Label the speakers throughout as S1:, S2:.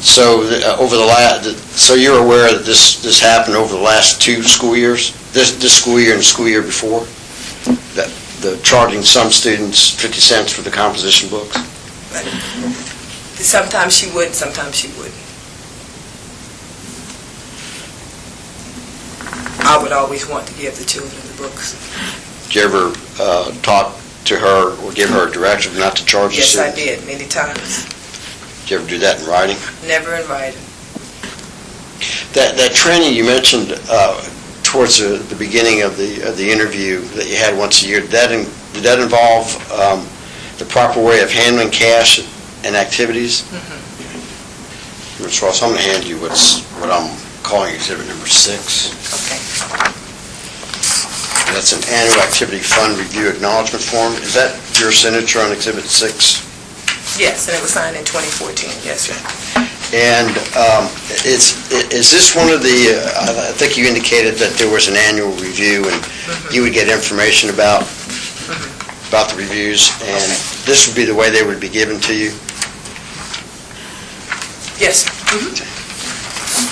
S1: So uh, over the la, so you're aware that this, this happened over the last two school years? This, this school year and the school year before? That, the charging some students 50 cents for the composition books?
S2: Sometimes she would, sometimes she wouldn't. I would always want to give the children the books.
S1: Did you ever uh, talk to her or give her a directive not to charge the
S2: Yes, I
S1: students?
S2: did, many times.
S1: Did you ever do that in writing?
S2: Never invited.
S1: That, that training you mentioned uh, towards the the beginning of the, of the interview that you had once a year, did that, in- did that involve um, the proper way of handling cash and activities? Ms. Ross, I'm going to hand you what's, what I'm calling exhibit number six.
S2: Okay.
S1: That's an annual activity fund review acknowledgement form. Is that your signature on exhibit six?
S2: Yes, and it was signed in 2014, yes, sir.
S1: And um, it's, is this one of the, uh, I think you indicated that there was an annual review, and you would get information about, about the reviews, and this would be the way they would be given to you?
S2: Yes, sir. Mhm.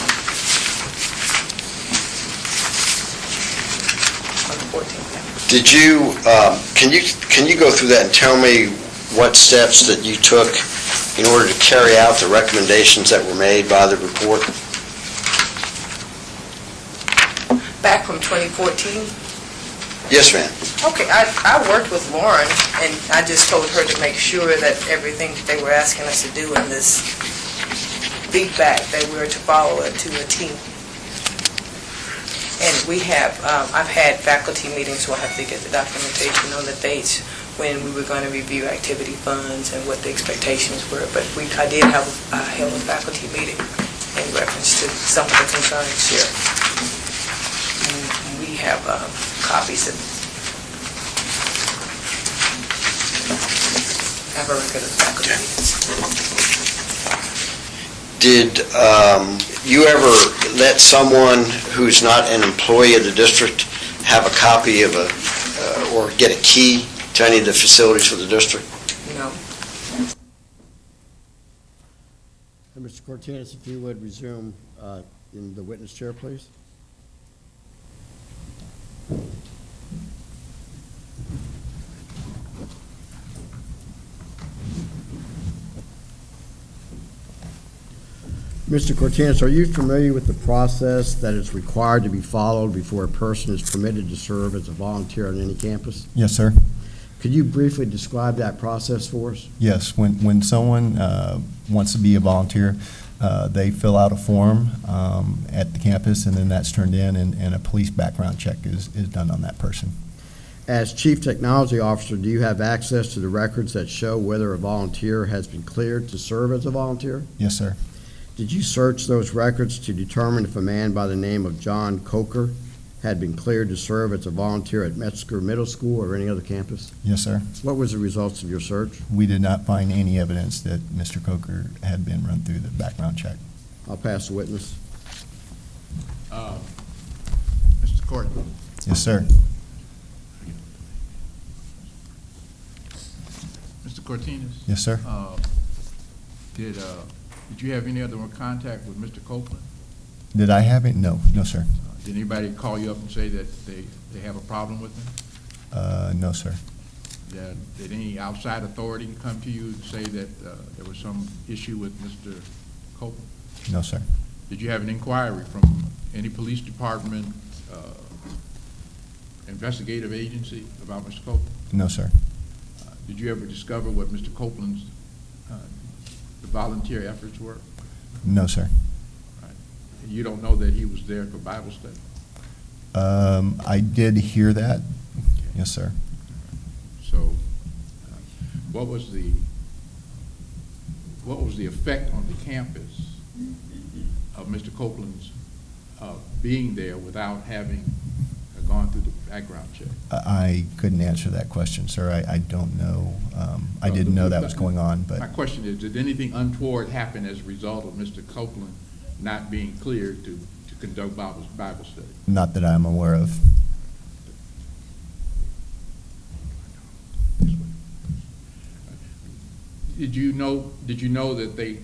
S2: On the 14th, yeah.
S1: Did you, um, can you, can you go through that and tell me what steps that you took in order to carry out the recommendations that were made by the report?
S2: Back from 2014,
S1: Yes, ma'am.
S2: Okay, I, I worked with Lauren, and I just told her to make sure that everything that they were asking us to do in this feedback, that we were to follow it to a T. And we have, um, I've had faculty meetings where I have to get the documentation on the dates when we were going to review activity funds and what the expectations were, but we, I did have, I held a faculty meeting in reference to some of the concerns here. And we have um, copies of have a record of faculty meetings.
S1: Did um, you ever let someone who's not an employee of the district have a copy of a, uh, or get a key to any of the facilities for the district?
S2: No.
S1: Mr. Cortinas, if you would resume uh, in the witness chair, please.
S3: Mr. Cortinas, are you familiar with the process that is required to be followed before a person is permitted to serve as a volunteer on any campus?
S4: Yes, sir.
S3: Could you briefly describe that process for us?
S4: Yes, when, when someone uh, wants to be a volunteer, uh, they fill out a form um, at the campus, and then that's turned in, and, and a police background check is, is done on that person.
S3: As Chief Technology Officer, do you have access to the records that show whether a volunteer has been cleared to serve as a volunteer?
S4: Yes, sir.
S3: Did you search those records to determine if a man by the name of John Coker had been cleared to serve as a volunteer at Metzger Middle School or any other campus?
S4: Yes, sir.
S3: What was the results of your search?
S4: We did not find any evidence that Mr. Coker had been run through the background check.
S3: I'll pass the witness.
S5: Uh, Mr. Court,
S4: Yes, sir.
S5: Mr. Cortinas,
S4: Yes, sir.
S5: uh, did, uh, did you have any other contact with Mr. Copeland?
S4: Did I have it? No, no, sir.
S5: Uh, Did anybody call you up and say that they, they have a problem with him?
S4: Uh, no, sir.
S5: Did- Did any outside authority come to you and say that uh, there was some issue with Mr. Copeland?
S4: No, sir.
S5: Did you have an inquiry from any police department, uh, investigative agency about Mr. Copeland?
S4: No, sir.
S5: Uh, Did you ever discover what Mr. Copeland's uh, volunteer efforts were?
S4: No, sir.
S5: You don't know that he was there for Bible study?
S4: Um, I did hear that. Yes, sir.
S5: So uh, what was the, what was the effect on the campus of Mr. Copeland's uh, being there without having gone through the background check?
S4: I I couldn't answer that question, sir. I, I don't know. Um, I
S5: No,
S4: didn't know
S5: but-
S4: that was going on,
S5: My
S4: but
S5: question is, did anything untoward happen as a result of Mr. Copeland not being cleared to, to conduct Bible, Bible study?
S4: not that I'm aware of.
S5: Did you know, did you know that they